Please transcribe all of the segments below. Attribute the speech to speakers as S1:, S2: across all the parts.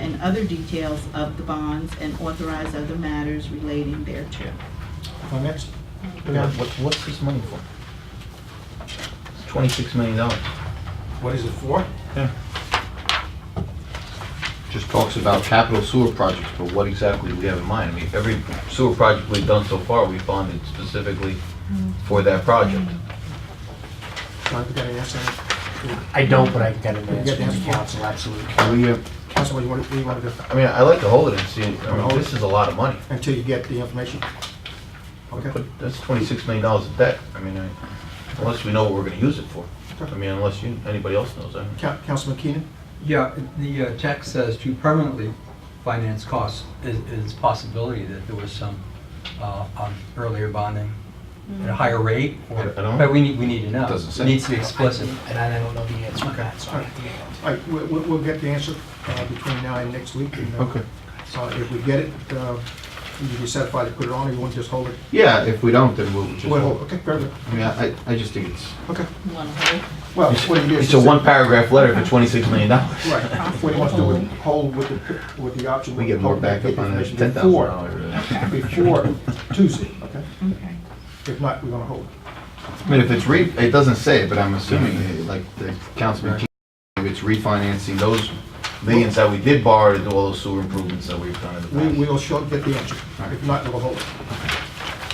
S1: and other details of the bonds and authorize other matters relating thereto.
S2: Comments? What, what's this money for? Twenty-six million dollars.
S3: What is it for?
S2: Yeah.
S4: just talks about capital sewer projects, but what exactly do we have in mind? I mean, every sewer project we've done so far, we funded specifically for that project.
S3: John, you got an answer? You
S5: I don't, but I can get an
S3: got the
S5: answer
S3: answer, Council?
S5: from council, absolutely.
S4: Can we, uh,
S3: Council, you want, what do you want to do?
S4: I mean, I like to hold it and see, I mean, oh, this is a lot of money.
S3: Until you get the information? Okay.
S4: But that's twenty-six million dollars of debt. I mean, I- unless we know what we're gonna use it for. I mean, unless you, anybody else knows that.
S3: Coun- Councilman Keenan?
S6: Yeah, the uh, text says to permanently finance costs is, is possibility that there was some uh, um, earlier bonding at a higher rate,
S4: I
S6: or,
S4: don't know.
S6: but we need, we need to know.
S4: Doesn't say.
S6: It needs to be explicit.
S5: And I don't know the answer to that, so I have to get it.
S3: All right, we- we- we'll get the answer uh, between now and next week. and, uh, uh, If we get it, uh, you be satisfied to put it on, or you want to just hold it?
S4: Yeah, if we don't, then we'll just.
S3: Wait, hold, okay, very good,
S4: I mean, I, I just think it's.
S3: okay.
S1: One whole.
S3: Well, what it is.
S4: It's a one paragraph letter for twenty-six million dollars.
S3: Right, what he wants to do is hold with the, with the option.
S4: We get more
S3: hold back
S4: backup on that
S3: information
S4: ten thousand dollars.
S3: Before before Tuesday, okay?
S1: Okay.
S3: If not, we're gonna hold it.
S4: I mean, if it's re, it doesn't say, it, but I'm assuming, uh, like, the councilman, Keenan, if it's refinancing those millions that we did borrow to do all those sewer improvements that we've done in
S3: We,
S4: the
S3: we'll short get the answer. If not, we'll hold it.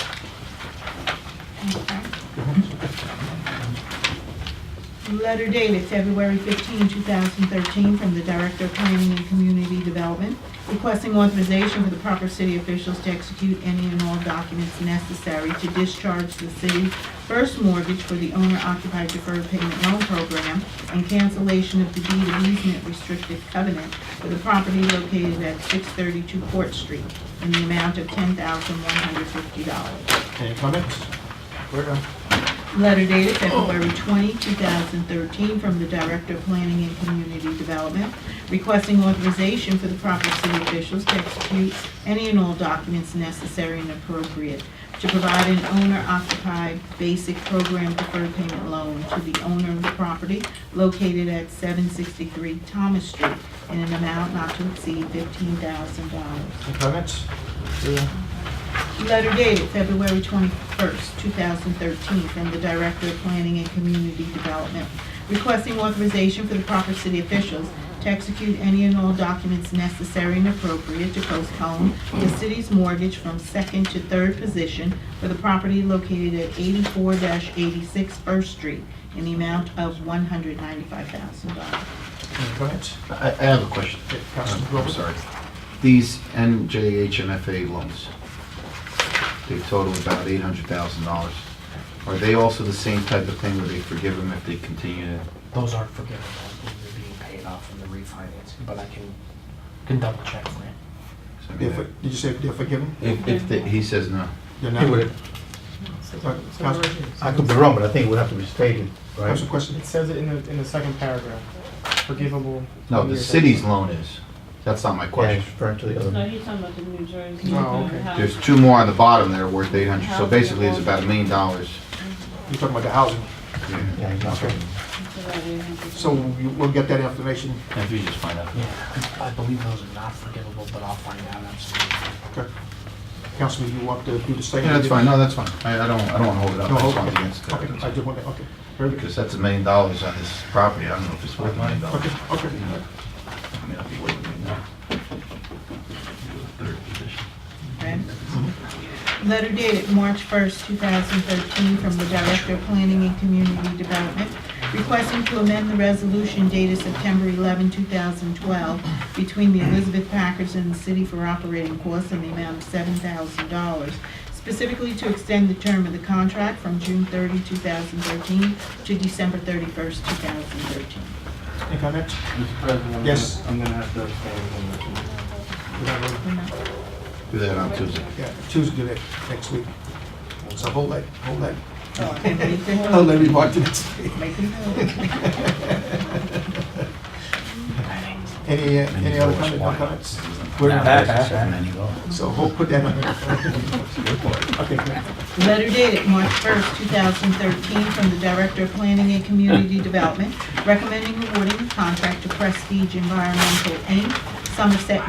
S1: Letter dated February 15, 2013, from the Director of Planning and Community Development, requesting authorization for the proper city officials to execute any and all documents necessary to discharge the city's first mortgage for the owner-occupied deferred payment loan program and cancellation of the deed of easement restricted covenant for the property located at 632 Court Street in the amount of $10,150.
S3: Any comments? We're done.
S1: Letter dated February 20, 2013, from the Director of Planning and Community Development, requesting authorization for the proper city officials to execute any and all documents necessary and appropriate to provide an owner-occupied basic program deferred payment loan to the owner of the property located at 763 Thomas Street in an amount not to exceed $15,000.
S3: Any comments? We're done.
S1: Letter dated February 21st, 2013, from the Director of Planning and Community Development, requesting authorization for the proper city officials to execute any and all documents necessary and appropriate to postpone the city's mortgage from second to third position for the property located at 84-86 First Street in the amount of $195,000.
S3: Any comments?
S4: I, I have a question.
S3: Okay, Councilman
S4: I'm
S3: Grover?
S4: sorry. These NJHMFA loans, they total about eight hundred thousand dollars. Are they also the same type of thing where they forgive them if they continue to?
S5: Those aren't forgivable, they're being paid off from the refinancing, but I can, can double check for you.
S4: I
S3: They're
S4: mean,
S3: for- Did you say they're forgiven?
S4: If, if they- he says no.
S3: They're not? Uh, Council-
S2: I could be wrong, but I think it would have to be stated, right?
S3: Council question?
S7: It says it in the, in the second paragraph, forgivable.
S4: No, the
S7: years.
S4: city's loan is. That's not my
S2: Yeah,
S4: question.
S2: it's referring to the other.
S8: No, he's talking about the New Jersey.
S7: Oh, okay.
S8: How-
S4: There's two more on the bottom there worth eight hundred, so basically it's about a million dollars.
S3: You're talking about the housing.
S2: Yeah, it's not-
S8: it's about eight hundred.
S3: So you- we'll get that information.
S4: If you just find out.
S5: Yeah, I believe those are not forgivable, but I'll find out absolutely.
S3: Okay. Councilman, you want to do the same?
S4: Yeah, that's fine, no, that's fine. I, I don't, I don't wanna hold it up,
S3: No,
S4: I just
S3: hold
S4: want
S3: on.
S4: the answer.
S3: Okay, I just want to, okay. Very good.
S4: Because that's a million dollars on this property, I don't know if it's worth a million dollars.
S3: Okay, okay.
S4: I mean, I'll be waiting now. Third position.
S1: Okay. Letter dated March 1st, 2013, from the Director of Planning and Community Development, requesting to amend the resolution dated September 11, 2012, between the Elizabeth Packers and the city for operating costs in the amount of $7,000, specifically to extend the term of the contract from June 30, 2013 to December 31st, 2013.
S3: Any comments?
S9: Mr. President, I'm
S3: Yes.
S9: gonna- I'm gonna have to abstain from this one.
S3: We're done.
S4: Do that on Tuesday.
S3: Yeah, Tuesday, do that next week. So hold that, hold that.
S1: Oh, I can't believe they-
S3: Hold that remark to next week.
S1: Make them go.
S3: Any, uh, any other comment, no comments? We're done. So we'll put that on. Okay, great.
S1: Letter dated March 1st, 2013, from the Director of Planning and Community Development, recommending awarding the contract to Prestige Environmental, Inc., Somerset